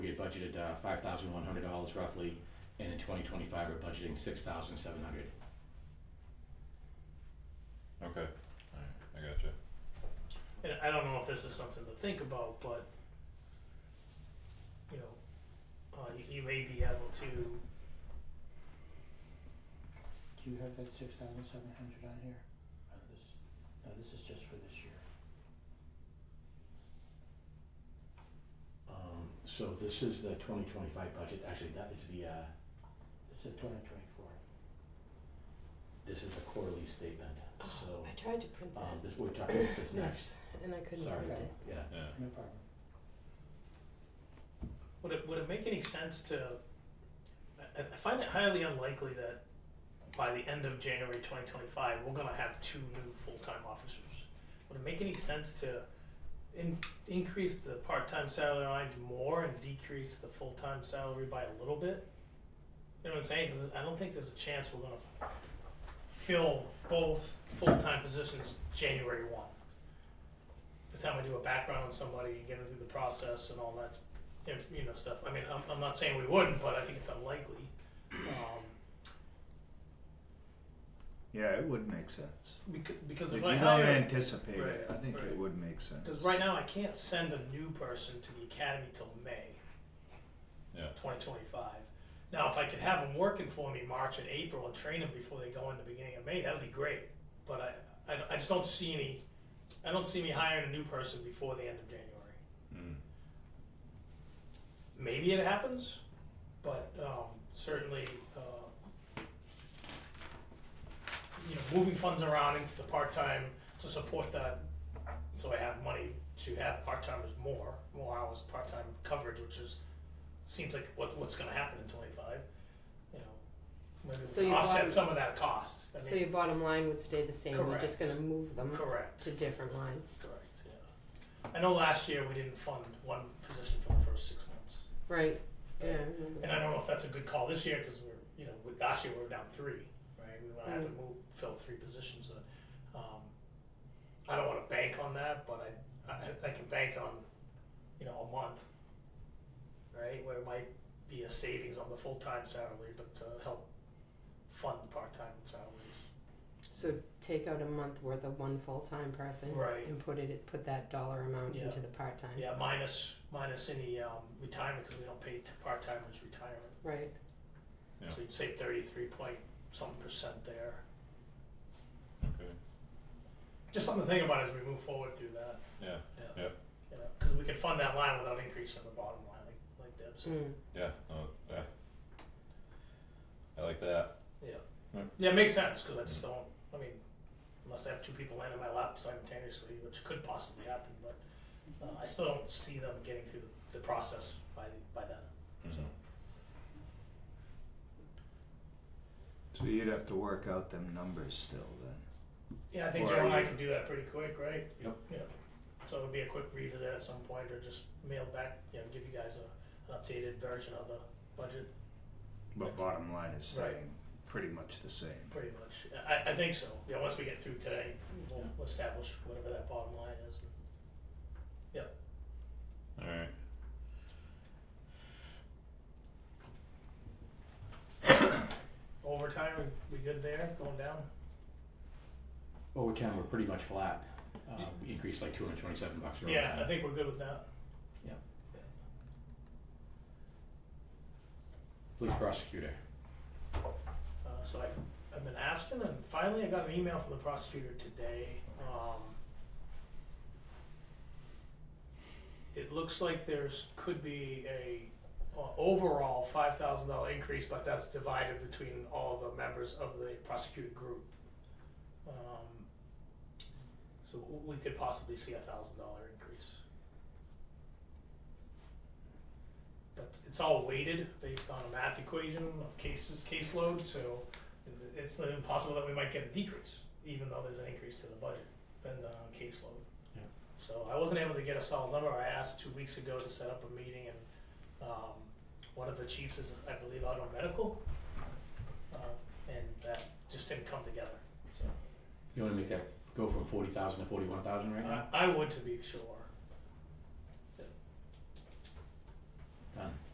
budgeted uh, five thousand one hundred dollars roughly, and in twenty twenty-five, we're budgeting six thousand seven hundred. Okay, alright, I gotcha. And I don't know if this is something to think about, but, you know, uh, you, you may be able to, Do you have that six thousand seven hundred on here? On Uh, this, no, this is just for this year. Um, so this is the twenty twenty-five budget, actually, that is the, uh, This is twenty twenty-four. this is the quarterly statement, so, Oh, I tried to print um, that. this, we're talking about this next, Yes, and I couldn't sorry, print it. yeah, Yeah, No problem. would it, would it make any sense to, I, I find it highly unlikely that by the end of January twenty twenty-five, we're gonna have two new full-time officers. Would it make any sense to in, increase the part-time salary lines more and decrease the full-time salary by a little bit? You know what I'm saying? Cause I don't think there's a chance we're gonna fill both full-time positions January one. By The time we do a background on somebody, get them through the process and all that, if, you know, stuff. I mean, I'm, I'm not saying we wouldn't, but I think it's unlikely. Um, Yeah, it would make sense. because, because If if you I don't hire, anticipate it, I Right, think right. it would make sense. Because right now I can't send a new person to the academy till May. Yeah. 2025. Now, if I could have them working for me March and April and train them before they go in the beginning of May, that would be great. But I, I, I just don't see any. I don't see me hiring a new person before the end of January. mm, Maybe it happens, but um, certainly. Uh, you know, moving funds around into the part-time to support that, so I have money to have part-timers more, more hours of part-time coverage, which is, seems like what, what's gonna happen in twenty-five, you know. Maybe So we can you offset want- some of that cost, I So mean, your bottom line would stay the same, you're just Correct. gonna move them correct, to different lines. correct, yeah. I know last year we didn't fund one position for the first six months, Right, yeah, I remember and I don't know if that's a good call this year, cause we're, you know, with- last year we were down three, right, we wanna have to Mm. move, fill three positions, but, um, I don't wanna bank on that, but I, I, I can bank on, you know, a month, right, where it might be a savings on the full-time salary, but to help fund the part-time salaries. So take out a month worth of one full-time person. Right. And put it, put that dollar amount Yeah. into the part-time. Yeah, minus, minus any, um, retirement, cause we don't pay t- part-timers retirement. Right, Yeah. So you'd save thirty-three point some percent there. okay, Just something to think about as we move forward through that. yeah, Yeah. Yep. You know, cause we can fund that line without increasing the bottom line, like, like Deb said. mm, yeah, no, yeah. I like that, Yeah. Right. Yeah, it makes sense because I just don't. I mean, unless I have two people land in my lap simultaneously, which could possibly happen, but uh, I still don't see them getting through the, the process by by then. mhm, So you'd have to work out them numbers still then. Yeah, I think Or Joe are and I you- can do that pretty quick, right? Yep. Yeah. So it would be a quick revisit at some point, or just mail back. You know, give you guys a, an updated version of the budget. But bottom line is Right. staying pretty much the same. Pretty much. I, I think so. Yeah. Once we get through today, we'll, we'll establish whatever that bottom line is. alright. Overtime, we, we good there? Going down? Over time, we're pretty much flat, uh, we increased like two hundred twenty-seven bucks for Yeah, I overtime. think we're good with that. Police prosecutor, Uh, so I, I've been asking, and finally I got an email from the prosecutor today. Um, it looks like there's could be a uh, overall five thousand dollar increase, but that's divided between all the members of the prosecuted group. Um, so w- we could possibly see a thousand dollar increase. but it's all weighted based on a math equation of cases caseload, so it's not impossible that we might get a decrease, even though there's an increase to the budget and the caseload. Yeah. So I wasn't able to get a solid number. I asked two weeks ago to set up a meeting, and um, one of the chiefs is, I believe, out on medical, uh, and that just didn't come together. So you wanna make that go from forty thousand to forty-one thousand right now? I, I would to be sure.